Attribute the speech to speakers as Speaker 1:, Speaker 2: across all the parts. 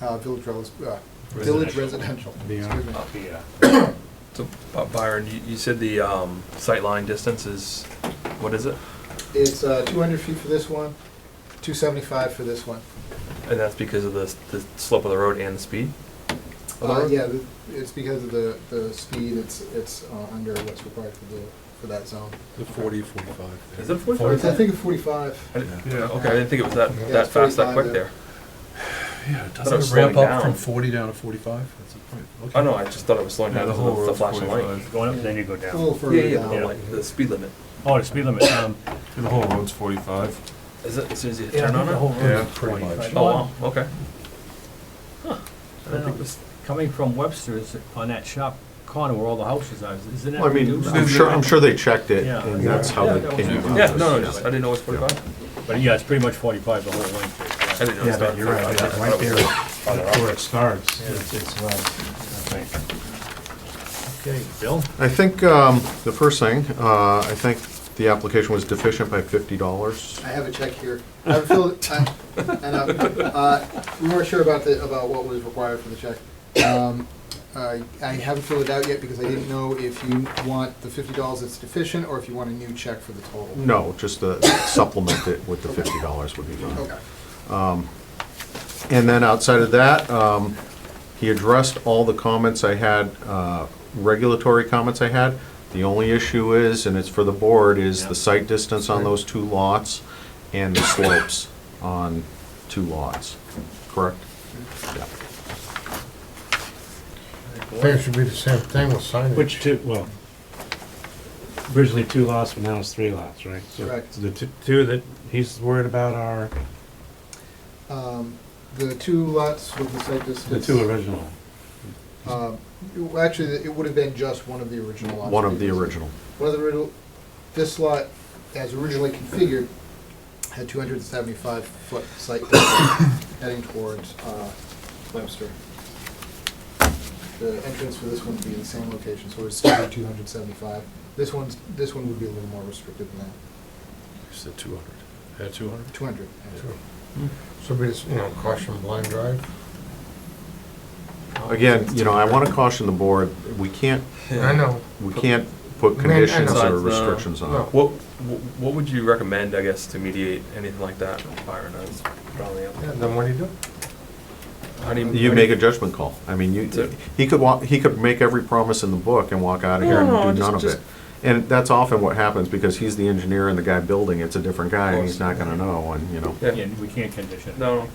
Speaker 1: uh, village, res- uh, village residential. Excuse me.
Speaker 2: up here.
Speaker 3: So, By- Byron, you, you said the, um, sightline distance is, what is it?
Speaker 1: It's uh, 200 feet for this one, 275 for this one.
Speaker 3: And that's because of the, s- the slope of the road and the speed? of the
Speaker 1: Uh,
Speaker 3: road?
Speaker 1: Yeah, th- it's because of the, the speed, it's, it's uh, under what's required for the, for that zone.
Speaker 4: The forty, forty-five. there.
Speaker 3: Is it
Speaker 1: Or
Speaker 3: forty-five?
Speaker 1: it's, I think, it's 45.
Speaker 3: I didn't-
Speaker 4: Yeah.
Speaker 3: Okay, I didn't think it was that,
Speaker 4: Yeah,
Speaker 3: that
Speaker 1: it's
Speaker 3: fast,
Speaker 1: 45
Speaker 3: that quick
Speaker 1: there.
Speaker 3: there.
Speaker 4: Yeah,
Speaker 3: Thought it was
Speaker 4: doesn't it ramp
Speaker 3: slowing
Speaker 4: up from
Speaker 3: down.
Speaker 4: forty down to forty-five? That's a point. Okay.
Speaker 3: Oh, no, I just thought it was slowing down because of the flashing light.
Speaker 2: Going up, then you go
Speaker 1: A little
Speaker 2: down.
Speaker 3: Yeah,
Speaker 1: further
Speaker 3: yeah, but
Speaker 1: down.
Speaker 3: like the speed limit.
Speaker 2: Oh, the speed limit, um.
Speaker 5: The whole road's forty-five.
Speaker 3: Is it, as soon as you turn on it?
Speaker 4: Yeah, pretty much.
Speaker 3: Oh, wow, okay. I don't think it was-
Speaker 2: Coming from Webster's on that sharp corner where all the houses are, isn't that?
Speaker 6: Well, I mean,
Speaker 2: reduced?
Speaker 6: I'm sure, I'm sure they checked it,
Speaker 2: Yeah.
Speaker 6: and that's how they
Speaker 2: Yeah.
Speaker 6: came up with
Speaker 3: Yeah,
Speaker 6: this.
Speaker 3: no, no, Oh, just, I didn't know it was forty-five.
Speaker 2: But yeah, it's pretty much forty-five the whole length.
Speaker 3: I didn't know it
Speaker 5: Yeah,
Speaker 3: was
Speaker 5: but you're right,
Speaker 3: forty-five.
Speaker 5: it's
Speaker 3: I
Speaker 5: right
Speaker 3: thought it
Speaker 5: there
Speaker 3: was-
Speaker 5: where it starts. It's, it's, uh,
Speaker 2: Okay. Okay, Bill?
Speaker 6: I think, um, the first thing, uh, I think the application was deficient by fifty dollars.
Speaker 1: I have a check here. I have a fill- I- and, um, uh, We weren't sure about the, about what was required for the check. Um, I I haven't filled it out yet because I didn't know if you want the fifty dollars that's deficient or if you want a new check for the total.
Speaker 6: No, just to supplement it with the fifty dollars would be
Speaker 5: Mm.
Speaker 6: fine.
Speaker 1: Okay.
Speaker 6: And then outside of that, um, he addressed all the comments I had, uh, regulatory comments I had. The only issue is, and it's for the board, is
Speaker 2: Yeah.
Speaker 6: the site distance on those two lots and the slopes on two lots, correct? Yeah.
Speaker 7: Think it should be the same thing with signage.
Speaker 5: which two, well, originally two lots, but now it's three lots, right? So-
Speaker 1: Correct.
Speaker 5: So the two- two that he's worried about are
Speaker 1: Um, The two lots with the site distance.
Speaker 5: the two original.
Speaker 1: Um, it- Actually, it would have been just one of the original lots.
Speaker 6: One of the
Speaker 1: previously.
Speaker 6: original.
Speaker 1: One of the original, this lot, as originally configured, had 275-foot site distance heading towards uh, Webster. The entrance for this one would be in the same location, so it's still be 275. This one's, this one would be a little more restricted than that,
Speaker 4: You said two hundred. Had two hundred?
Speaker 1: 200. actually.
Speaker 7: Should be, you know, caution blind drive.
Speaker 6: Again, you know, I want to caution the board, we can't,
Speaker 7: I know.
Speaker 6: we can't put
Speaker 7: Man, I know.
Speaker 6: conditions or
Speaker 3: Besides, uh,
Speaker 6: restrictions on it.
Speaker 7: no.
Speaker 3: What, wh- what would you recommend, I guess, to mediate anything like that, Byron? I was probably,
Speaker 7: Yeah, then what do you do?
Speaker 3: how do you?
Speaker 6: You make a judgment call. I mean,
Speaker 3: So-
Speaker 6: you, he could walk, he could make every promise in the book and walk out of here
Speaker 3: No, no,
Speaker 6: and do
Speaker 3: just-
Speaker 6: none of
Speaker 3: just-
Speaker 6: it. And that's often what happens, because he's the engineer and the guy building, it's a different guy, and
Speaker 3: Of
Speaker 6: he's
Speaker 3: course.
Speaker 6: not gonna know, and, you know.
Speaker 3: Yeah,
Speaker 2: Yeah, we can't condition. it.
Speaker 3: No.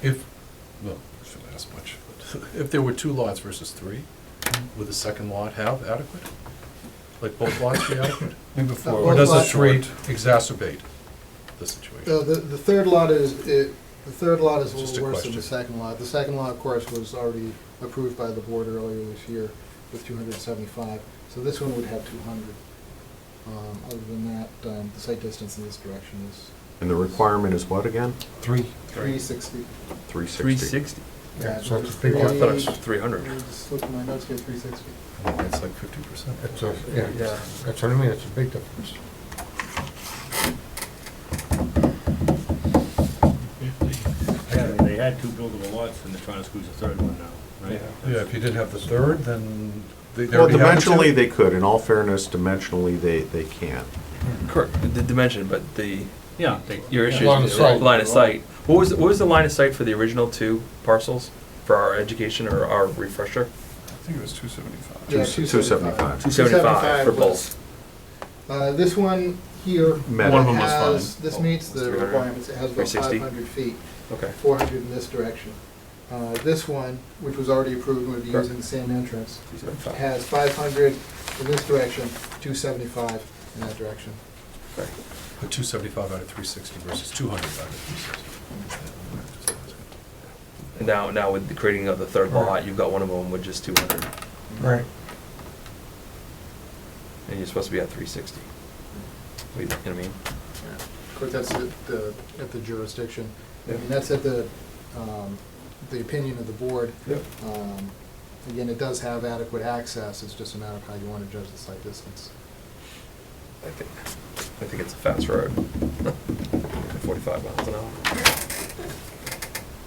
Speaker 4: If, well, I shouldn't ask much. If there were two lots versus three, would the second lot have adequate? Like both lots be adequate?
Speaker 1: Uh,
Speaker 4: Or
Speaker 1: both
Speaker 4: does the
Speaker 1: lots-
Speaker 4: three exacerbate the situation?
Speaker 1: Uh, The, the third lot is, it- the third lot is a
Speaker 4: Just
Speaker 1: little
Speaker 4: a
Speaker 1: worse than the
Speaker 4: question.
Speaker 1: second lot. The second lot, of course, was already approved by the board earlier this year with 275, so this one would have 200. Um, Other than that, um, the site distance in this direction is
Speaker 6: And the requirement is what again?
Speaker 4: Three.
Speaker 1: 360.
Speaker 6: Three sixty?
Speaker 3: Three sixty?
Speaker 7: Yeah, so it's a
Speaker 1: Three-
Speaker 7: big
Speaker 3: Oh, I thought it was
Speaker 1: Three-
Speaker 3: three hundred.
Speaker 1: I Just looked at my notes here, 360.
Speaker 4: It's Oh, like fifty percent.
Speaker 7: It's a, yeah,
Speaker 3: Yeah.
Speaker 7: that's what I mean, it's a big difference.
Speaker 2: Yeah, They had two buildable lots and they're trying to squeeze a third one now, right?
Speaker 4: Yeah, if you did have the third, then they they
Speaker 6: Well,
Speaker 4: already have the two.
Speaker 6: dimensionally, they could, in all fairness, dimensionally, they, they can.
Speaker 3: Correct, the- the dimension, but the,
Speaker 2: Yeah. they-
Speaker 3: your
Speaker 2: yeah.
Speaker 3: issue
Speaker 7: Line of
Speaker 3: is
Speaker 7: sight.
Speaker 3: line of sight. What was, the- what was the line of sight for the original two parcels for our education or our refresher?
Speaker 5: I think it was two seventy-five.
Speaker 1: Yeah,
Speaker 6: Two- 275.
Speaker 3: Two
Speaker 1: 275
Speaker 3: seventy-five for
Speaker 1: was-
Speaker 3: both.
Speaker 1: Uh, This one here
Speaker 6: Met One of
Speaker 5: them was
Speaker 1: has,
Speaker 5: fine.
Speaker 1: this
Speaker 3: Oh,
Speaker 1: meets
Speaker 3: it's
Speaker 1: the
Speaker 3: 300.
Speaker 1: requirements, it has about
Speaker 3: 360.
Speaker 1: 500 feet.
Speaker 3: Okay.
Speaker 1: 400 in this direction. Uh, This one, which was already approved, would be
Speaker 3: Correct.
Speaker 1: using the same entrance,
Speaker 3: 275.
Speaker 1: has 500 in this direction, 275 in that direction.
Speaker 3: Okay.
Speaker 4: But two seventy-five out of three sixty versus two hundred out of three sixty.
Speaker 3: And now, now with the creating of the third lot, you've got one of them with just two hundred,
Speaker 7: Right.
Speaker 3: and you're supposed to be at three sixty. You know what I mean?
Speaker 1: Of course, that's at the, at the jurisdiction. I
Speaker 3: Yeah.
Speaker 1: mean, that's at the, um, the opinion of the board.
Speaker 3: Yep.
Speaker 1: Um, Again, it does have adequate access, it's just a matter of how you want to judge the site distance.
Speaker 3: I think, I think it's a fast road. Forty-five miles an hour.